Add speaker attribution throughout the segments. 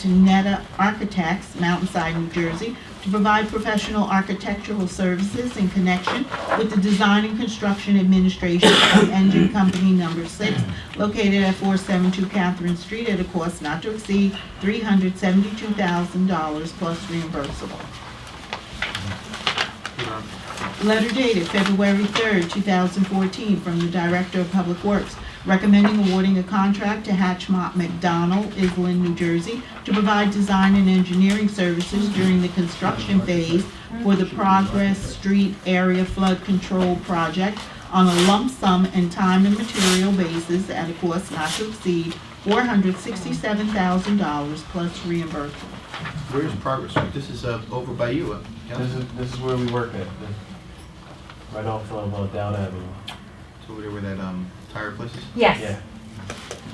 Speaker 1: to Netta Architects, Mountainside, New Jersey, to provide professional architectural services in connection with the design and construction administration of Engine Company Number Six, located at four seven two Catherine Street at a cost not to exceed three hundred seventy-two thousand dollars plus reimbursable.
Speaker 2: Um,
Speaker 1: Letter dated February 3rd, 2014, from the Director of Public Works recommending awarding a contract to Hatchmont McDonald, Island, New Jersey, to provide design and engineering services during the construction phase for the Progress Street Area Flood Control Project on a lump sum and time and material basis at a cost not to exceed $467,000 plus reimbursement.
Speaker 2: Where's Progress Street? This is uh, over by you, uh,
Speaker 3: This
Speaker 2: Council.
Speaker 3: is, this is where we work at, the- right off of uh, Down Avenue.
Speaker 2: It's over there where that um, tire place is.
Speaker 3: Yeah,
Speaker 4: Yes,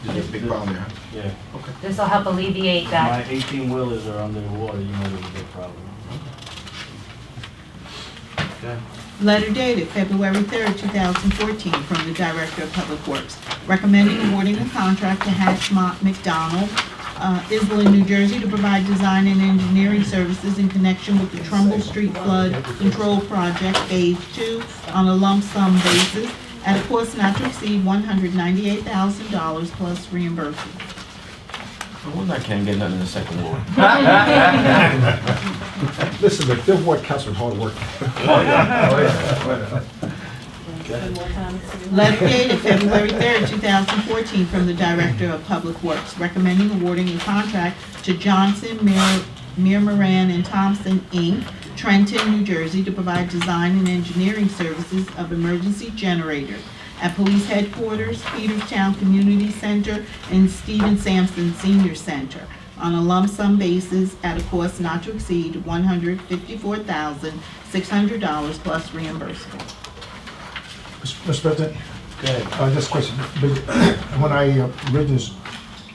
Speaker 2: There's a big problem there, huh?
Speaker 3: yeah.
Speaker 2: Okay.
Speaker 4: this will help alleviate
Speaker 3: My
Speaker 4: that.
Speaker 3: eighteen wheelers are under the water, you know there's a big problem.
Speaker 2: Okay.
Speaker 1: Letter dated February 3rd, 2014, from the Director of Public Works, recommending awarding a contract to Hatchmont McDonald, uh, Island, New Jersey, to provide design and engineering services in connection with the Trumbull Street Flood Control Project Phase 2 on a lump sum basis at a cost not to exceed $198,000 plus reimbursement.
Speaker 5: I wonder I can't get nothing in the second ward.
Speaker 6: Listen, the Bill Ward counts from hard work.
Speaker 1: Letter dated February 3rd, 2014, from the Director of Public Works recommending awarding a contract to Johnson, Mir Mir Moran, and Thompson, Inc., Trenton, New Jersey, to provide design and engineering services of emergency generators at Police Headquarters, Peterstown Community Center, and Stephen Sampson Senior Center on a lump sum basis at a cost not to exceed $154,600 plus reimbursable.
Speaker 6: Mr. President,
Speaker 3: Go ahead.
Speaker 6: uh, this question, but when I uh, originally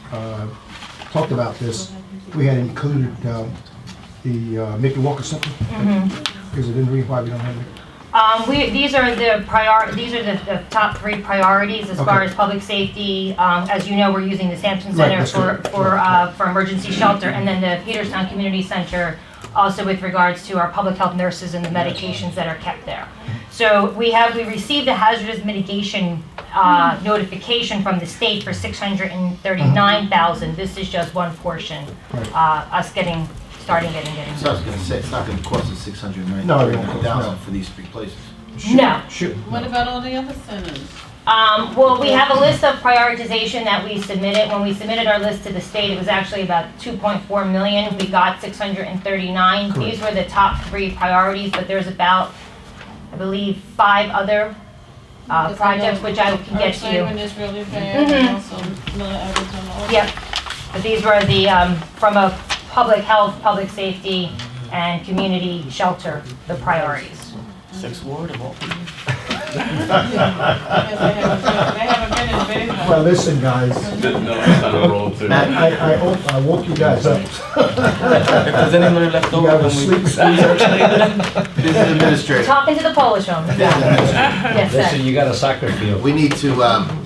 Speaker 6: uh, talked about this, we had included um, the uh, Mickey Walker Center.
Speaker 7: Mm-hmm.
Speaker 6: Is it in the reason why we don't have it?
Speaker 4: Um, we, these are the prior, these are the, the top three priorities as far
Speaker 6: Okay.
Speaker 4: as public safety. Um, as you know, we're using the Sampson
Speaker 6: Right,
Speaker 4: Center
Speaker 6: that's
Speaker 4: for,
Speaker 6: correct.
Speaker 4: for, uh, for emergency shelter, and then the Peterstown Community Center also with regards to our public health nurses and the medications that are kept there. So we have, we received the hazardous mitigation, uh, notification from the state for six hundred and thirty-nine thousand. This is just one portion,
Speaker 6: Right.
Speaker 4: uh, us getting, starting getting, getting.
Speaker 2: So I was gonna say, it's not gonna cost us six hundred and
Speaker 6: No, it won't
Speaker 2: ninety
Speaker 6: cost,
Speaker 2: thousand
Speaker 6: no.
Speaker 2: for these three places.
Speaker 4: No.
Speaker 6: Shoot.
Speaker 7: What about all the other centers?
Speaker 4: Um, well, we have a list of prioritization that we submitted. When we submitted our list to the state, it was actually about two point four million. We got six hundred and thirty-nine. These were the top three priorities, but there's about, I believe, five other, uh,
Speaker 7: Because I know
Speaker 4: projects, which I can get to you. Mm-hmm.
Speaker 7: Our is really bad, and also Miller Evans and all.
Speaker 4: Yep, but these were the, um, from a public health, public safety, and community shelter, the priorities.
Speaker 5: Sixth ward of all people?
Speaker 7: Because they haven't been- they haven't been in bed.
Speaker 6: Well, listen, guys,
Speaker 8: No, it's not a roll too.
Speaker 6: I, I- I, op- I woke you guys up.
Speaker 5: If there's anybody left
Speaker 6: You
Speaker 5: over,
Speaker 6: guys were
Speaker 5: then we.
Speaker 6: sleeping.
Speaker 2: This is administrative.
Speaker 4: Talking to the Polish woman. Yes, sir.
Speaker 9: Listen, you got a soccer field.
Speaker 2: We need to, um,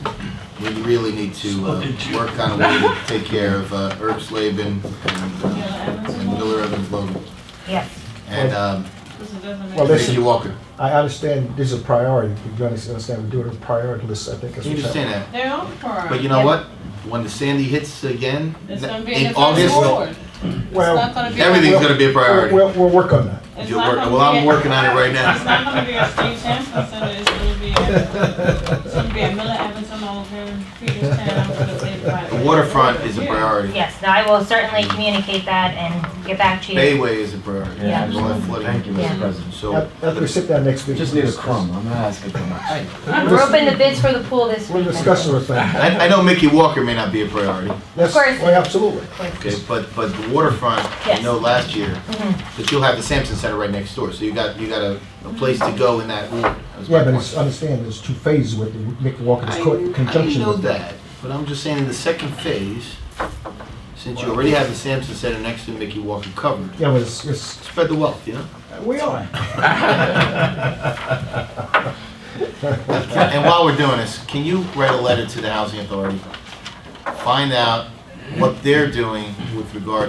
Speaker 2: we really need to, uh, work on a way to take care of, uh, Herb Slavin and,
Speaker 7: Miller
Speaker 2: uh,
Speaker 7: Evans and
Speaker 2: and
Speaker 7: all.
Speaker 2: Miller Evans Logan
Speaker 4: Yes.
Speaker 2: and, um,
Speaker 7: This is doesn't
Speaker 6: Well,
Speaker 7: make
Speaker 6: listen.
Speaker 2: Reggie Walker.
Speaker 6: I understand this is a priority. You're gonna understand, we're doing a priority list, I think. that's
Speaker 2: You
Speaker 6: what's happening.
Speaker 2: understand that?
Speaker 7: their own part.
Speaker 2: But you know what? When the Sandy hits again,
Speaker 7: It's gonna be
Speaker 2: in
Speaker 7: in the first
Speaker 2: August,
Speaker 7: ward. It's not
Speaker 6: Well,
Speaker 7: gonna be.
Speaker 2: everything's gonna be a priority.
Speaker 6: we'll, we'll work on that.
Speaker 7: It's
Speaker 2: You'll
Speaker 7: not
Speaker 2: work-
Speaker 7: gonna
Speaker 2: well,
Speaker 7: be
Speaker 2: I'm
Speaker 7: a-
Speaker 2: working on it right now.
Speaker 7: It's not gonna be a Steve Sampson Center, it's gonna be, a- it's gonna be a Miller Evans and all, and Peterstown, because
Speaker 2: the
Speaker 7: they.
Speaker 2: waterfront is a priority.
Speaker 4: Yes, no, I will certainly communicate that and get back to you.
Speaker 2: Bayway is a priority.
Speaker 4: Yeah.
Speaker 2: There's a lot of flooding.
Speaker 5: Thank you,
Speaker 4: Yeah.
Speaker 5: Mr. President.
Speaker 2: So,
Speaker 6: After we sit down next week.
Speaker 5: Just need a crumb, I'm not asking for much.
Speaker 4: We're open the bids for the pool this
Speaker 6: We'll
Speaker 4: week.
Speaker 6: discuss the thing.
Speaker 2: I, I know Mickey Walker may not be a priority.
Speaker 6: Of
Speaker 4: course.
Speaker 6: Well, absolutely.
Speaker 2: Okay, but, but the waterfront, I
Speaker 4: Yes.
Speaker 2: know last year,
Speaker 7: Mm-hmm.
Speaker 2: but you'll have the Sampson Center right next door, so you got, you got a, a place to go in that ward. That was my
Speaker 6: Yeah, but
Speaker 2: point.
Speaker 6: it's, understand, there's two phases with the Mick Walker, it's co- in
Speaker 2: I I
Speaker 6: conjunction
Speaker 2: know
Speaker 6: with that.
Speaker 2: that, but I'm just saying in the second phase, since you already have the Sampson Center next to Mickey Walker covered,
Speaker 6: Yeah, but it's, it's,
Speaker 2: spread the wealth, you know?
Speaker 6: we are.
Speaker 2: And while we're doing this, can you write a letter to the housing authority? Find out what they're doing with regard